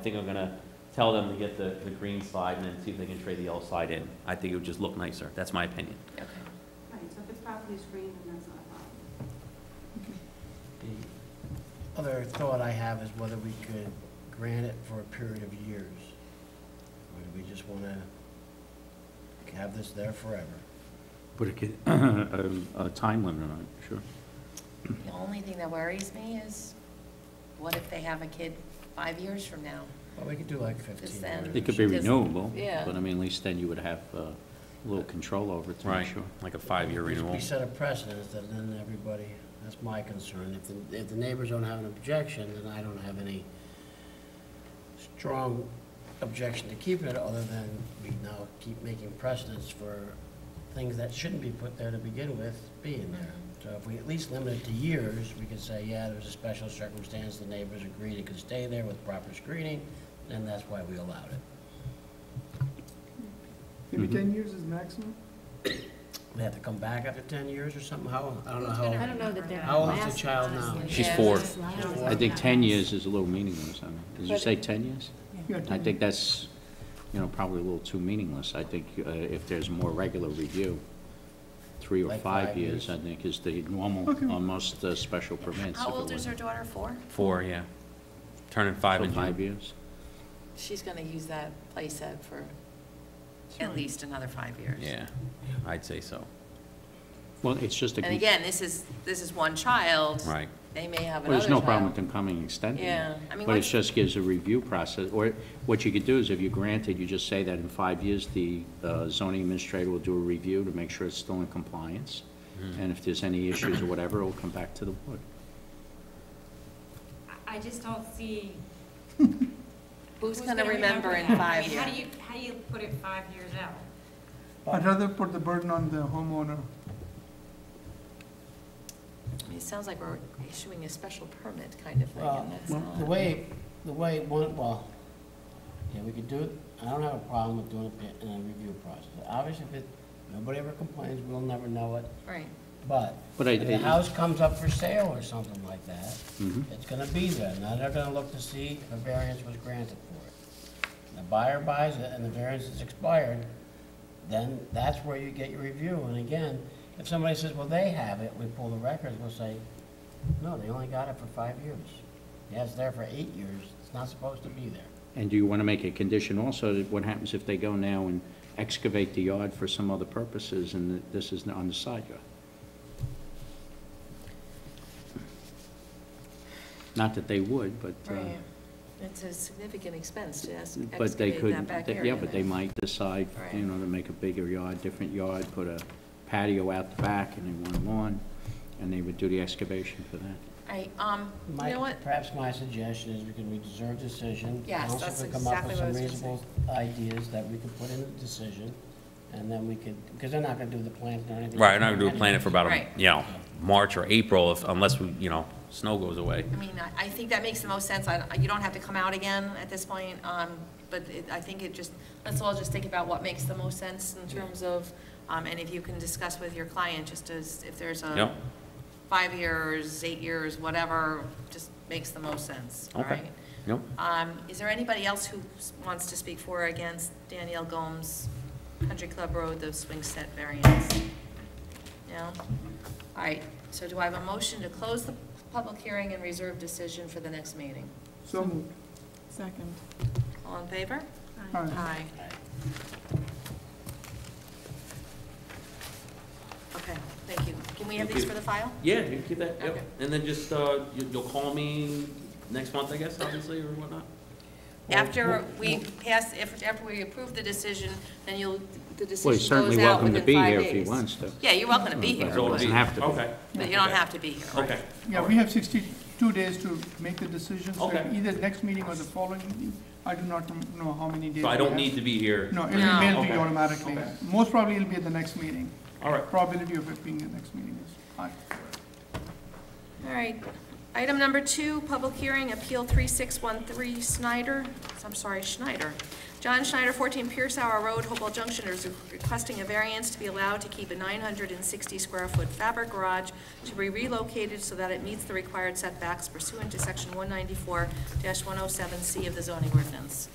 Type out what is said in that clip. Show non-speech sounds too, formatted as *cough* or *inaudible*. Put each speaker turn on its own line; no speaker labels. I think I'm gonna tell them to get the, the green slide and then see if they can trade the yellow slide in. I think it would just look nicer. That's my opinion.
Okay.
Right, so if it's properly screened, then that's not a problem.
Other thought I have is whether we could grant it for a period of years. Or do we just want to have this there forever?
Put a, ki- *clears throat* um, a time limit on it, sure.
The only thing that worries me is, what if they have a kid five years from now?
Well, we could do like
Just
15
then.
It
years.
could
She
be
doesn't-
renewable.
Yeah.
But I mean, at least then you would have uh, a little control over it to make sure.
Like a five-year
Because
renewal.
We set a precedent that then everybody, that's my concern. If the, if the neighbors don't have an objection, then I don't have any strong objection to keep it, other than we now keep making precedents for things that shouldn't be put there to begin with being there. So if we at least limit it to years, we can say, yeah, there's a special circumstance, the neighbors agreed it could stay there with proper screening, and that's why we allowed it.
Maybe
Mhm.
ten years is maximum?
They have to come back after ten years or something, how, I don't know
I
how,
don't know that they're.
how old's the child now?
She's four.
I think 10 years is a little meaningless. I mean, did you
But-
say 10 years?
Yeah,
I
10
think that's, you know, probably a little too meaningless. I think uh, if there's more regular review, three or
Like
five
five
years,
years?
I think, is the normal
Okay.
on most uh, special permits.
How
if it
old is
were-
her daughter, four?
Four, yeah. Turning five
So
in
Five
June.
years?
She's gonna use that playset for at least another five years.
Yeah, I'd say so.
Well, it's just a.
And
con-
again, this is, this is one child.
Right.
They may have another
Well, there's
child.
no problem with them coming and extending it.
Yeah, I mean,
But it
once-
just gives a review process, or what you could do is if you grant it, you just say that in five years, the uh, zoning administrator will do a review to make sure it's still in compliance,
Mm-hmm.
and if there's any issues or whatever, it'll come back to the board.
I just don't see.
Who's gonna remember in
that?
five
I mean, how do
years?
you, how do you put it five years out?
I'd rather put the burden on the homeowner.
I mean, It sounds like we're issuing a special permit kind of thing,
Well,
and that's
The
not.
way, the way one, well, yeah, we could do it, I don't have a problem with doing it in a review process. Obviously, if it, nobody ever complains, we'll never know it,
Right.
but
But I-
if the
I-
house comes up for sale or something like that,
Mhm.
it's gonna be there. Now they're gonna look to see if a variance was granted for it. The buyer buys it and the variance is expired, then that's where you get your review. And again, if somebody says, well, they have it, we pull the records, we'll say, no, they only got it for five years. Yeah, it's there for eight years, it's not supposed to be there.
And do you want to make a condition also, that what happens if they go now and excavate the yard for some other purposes, and that this is on the side yard? Not that they would, but. uh,
Right. It's a significant expense to es-
But they
excavate
could,
that back
they-
area.
yeah, but they might decide,
Right.
you know, to make a bigger yard, different yard, put a patio out the back and they want a lawn, and they would do the excavation for that.
I, um, you
My-
know what?
Perhaps my suggestion is we can reserve decision.
Yes,
Council
that's
could come up
exactly
with
what I
some
was gonna
reasonable Ideas that we could put in the decision, and then we could, because they're not gonna do the plans or anything.
Right, and I would do a plan it for about, a
Right.
you know, March or April if, unless we, you know, snow goes away.
I mean, I, I think that makes the most sense. I, you don't have to come out again at this point, um, but it, I think it just, let's all just think about what makes the most sense in terms of, um, and if you can discuss with your client, just as, if there's
Yep.
a five years, eight years, whatever, just makes the most sense, all
Okay.
right?
Nope.
Um, is there anybody else who s- wants to speak for or against Danielle Gomes, Country Club Road, the swing set variance? No? All right, so do I have a motion to close the public hearing and reserve decision for the next meeting?
So moved.
Second.
All in favor?
All right.
Aye. Okay, thank you. Can we have
Thank
these
you.
for the file?
Yeah, you can keep that, yep.
Okay.
And then just, uh, you- you'll call me next month, I guess, obviously, or whatnot?
Well,
After
well,
we pass, if- after we approve the decision, then you'll, the
Well, he's
decision
certainly
goes out
welcome to
within five days.
be here if he wants to.
Yeah, you're welcome to be
Well,
here,
So it'll
doesn't
be-
have to be.
Okay,
but you don't have to be here.
okay.
Yeah, we have sixty-two days to make the decision, so
Okay.
either next meeting or the following meeting. I do not know how many days.
So I
we
don't
have.
need to be here.
No, it'll be
No.
mailed to
Okay.
you automatically.
Okay.
Most probably it'll be at the next meeting.
All right.
Probability of it being the next meeting is high.
All right. Item number two, public hearing, Appeal 3613 Snyder, I'm sorry, Schneider. John Schneider, 14 Pierce Hour Road, Hopewell Junction, is requesting a variance to be allowed to keep a 960-square-foot fabric garage to be relocated so that it meets the required setbacks pursuant to Section 194-107C of the zoning ordinance.